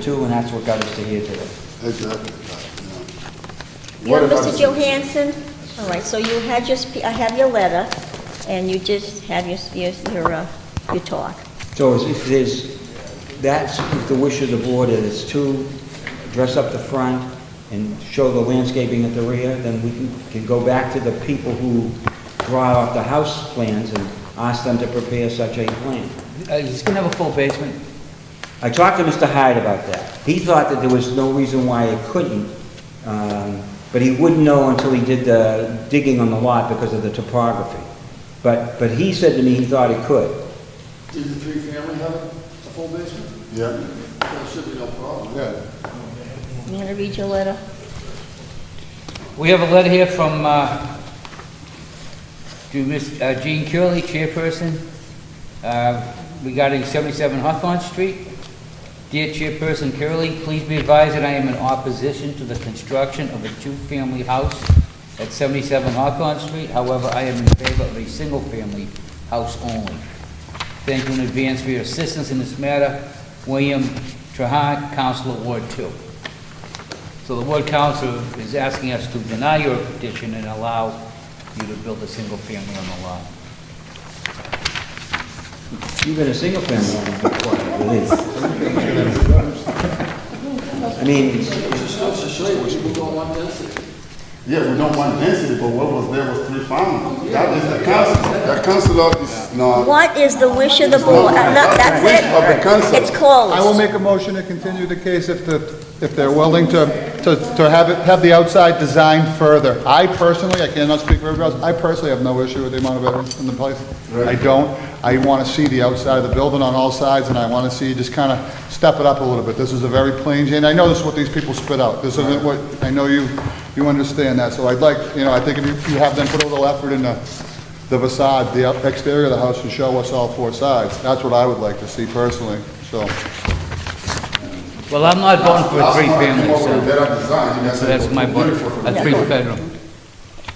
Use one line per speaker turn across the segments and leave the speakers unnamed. too, and that's what got us to here today.
Exactly.
You're
What about
Mr.
the-
Johansson? All right, so you had your, spe- I have your letter, and you just have your, your, your, uh, your talk.
So is- if there's, that's if the wish of the board is to dress up the front and show the landscaping at the rear, then we can- can go back to the people who draw out the house plans and ask them to prepare such a plan.
Uh, He's gonna have a full basement.
I talked to Mr. Hyde about that. He thought that there was no reason why it couldn't, um, but he wouldn't know until he did the digging on the lot because of the topography. But, but he said to me he thought it could.
Did the three-family have a full basement?
Yeah,
There should be no problem.
yeah.
You wanna read your letter?
We have a letter here from, uh, to Miss uh, Jean Curley, chairperson, uh, regarding 77 Hawthorne Street. Dear Chairperson Curley, please be advised that I am in opposition to the construction of a two-family house at 77 Hawthorne Street. However, I am in favor of a single-family house only. Thank you in advance for your assistance in this matter. William Trahan, Council of Ward 2. So the Ward Council is asking us to deny your petition and allow you to build a single family on the lot.
Even a single family would be quite a relief. I mean, oh, it's-
Just goes to show you, we should go on one density.
Yeah, we don't want density, but what was there was three families. That is the council. The council of is not.
What is the wish of the board? Uh, no, that's
Wish of the council.
it. It's closed.
I will make a motion to continue the case if the, if they're willing to, to, to have it, have the outside designed further. I personally, I cannot speak for everybody else, I personally have no issue with the amount of evidence in the place. I don't. I want to see the outside of the building on all sides, and I want to see, just kind of step it up a little bit. This is a very plain Jane, I know this is what these people spit out. This isn't what, I know you, you understand that, so I'd like, you know, I think if you you have them put a little effort into the facade, the exterior of the house, and show us all four sides. That's what I would like to see personally, so.
Well, I'm not voting for
That's
a
not
three-family,
what
so.
we did at design. You guys
So that's
said
my vote,
beautiful for
a
the-
three-bedroom.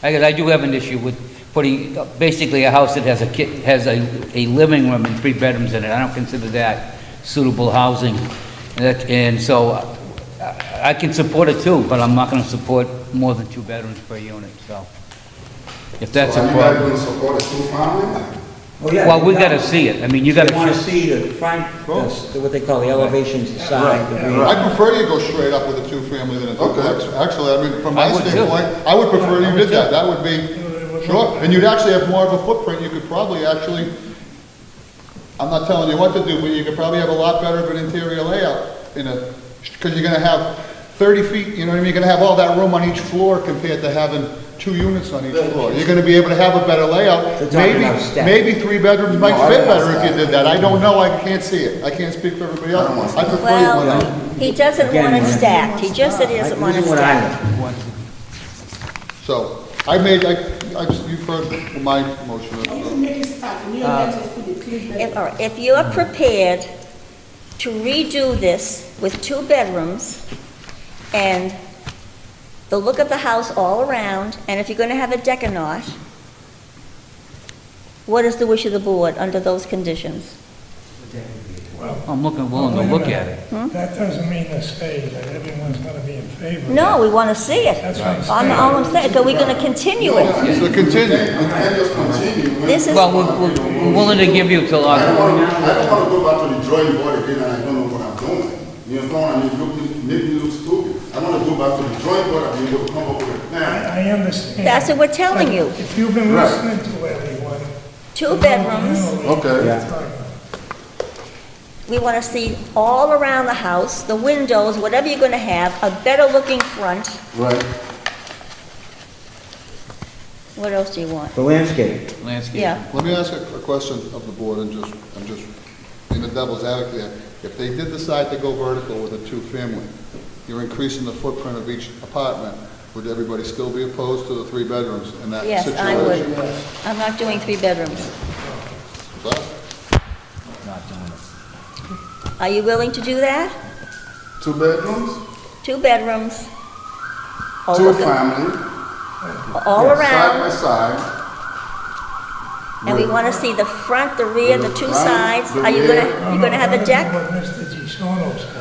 I guess I do have an issue with putting, uh, basically, a house that has a ki has a, a living room and three bedrooms in it. I don't consider that suitable housing. And that- And so I- I can support it too, but I'm not gonna support more than two bedrooms per unit, so. If that's
So
a
Are you guys
problem.
going to support a two family?
oh yeah.
Well, we gotta see it. I mean, you gotta.
They wanna see the front, the- what they call the elevations, the side, the
Mm.
rear.
I prefer you go straight up with a two-family than a duplex. Actually, I mean, from
I
my
would too.
standpoint, I would prefer you did that. That would be, sure. And you'd actually have more of a footprint. You could probably actually, I'm not telling you what to do, but you could probably have a lot better of an interior layout in a, because you're gonna have 30 feet, you know what I mean? You're gonna have all that room on each floor compared to having two units on each floor. You're gonna be able to have a better
They're
layout.
talking
Maybe,
about stacks.
maybe three bedrooms might
No, I
fit
don't want
better if you
stacks.
did that. I don't know, I can't see it. I can't speak for everybody else.
I don't want
I prefer you went out.
Well, he doesn't
Again,
want it
man.
stacked. He just said he doesn't want it
This is what I know.
stacked.
So, I made, I, I, you've heard my motion.
Oh, If, all right, if you are prepared to redo this with two bedrooms and the look of the house all around, and if you're gonna have a deck or not, what is the wish of the board under those conditions?
I'm looking, willing to
Wait a
look at it.
minute. That doesn't mean to say that everyone's gonna be in favor. of
No,
it.
we wanna see it.
That's what I'm
I'm,
saying.
all I'm saying, are we gonna continue it?
So continue.
We can't just continue. We-
This is,
Well, we're- we're we're willing to give you till
I don't
October.
want to, I don't want to go back to the drawing board again and I don't know what I'm doing. You know, what I mean, look, make me look stupid. I want to go back to the drawing board and we will come up with a plan.
I I understand.
that's what we're telling you,
But If you've been
Right.
listening to everyone.
two
you
bedrooms.
know what
Okay.
you're talking about.
We want to see all around the house, the windows, whatever you're going to have, a better-looking front.
Right.
What else do you want?
The landscape.
Landscape.
Yeah.
Let me ask a a question of the board and just, I'm just, in the devil's advocate here. If they did decide to go vertical with a two-family, you're increasing the footprint of each apartment. Would everybody still be opposed to the three bedrooms in that
Yes,
situation?
I would. I'm not doing three bedrooms.
But
Not doing it.
Are you willing to do that?
Two bedrooms,
Two bedrooms? all
two
of them-
family.
All
Side by
around,
side.
and we want to see the front, the rear, the two
Front,
sides.
the
Are you
rear.
going to, you going to have a
I don't know
deck?
What Mr. DeSono said.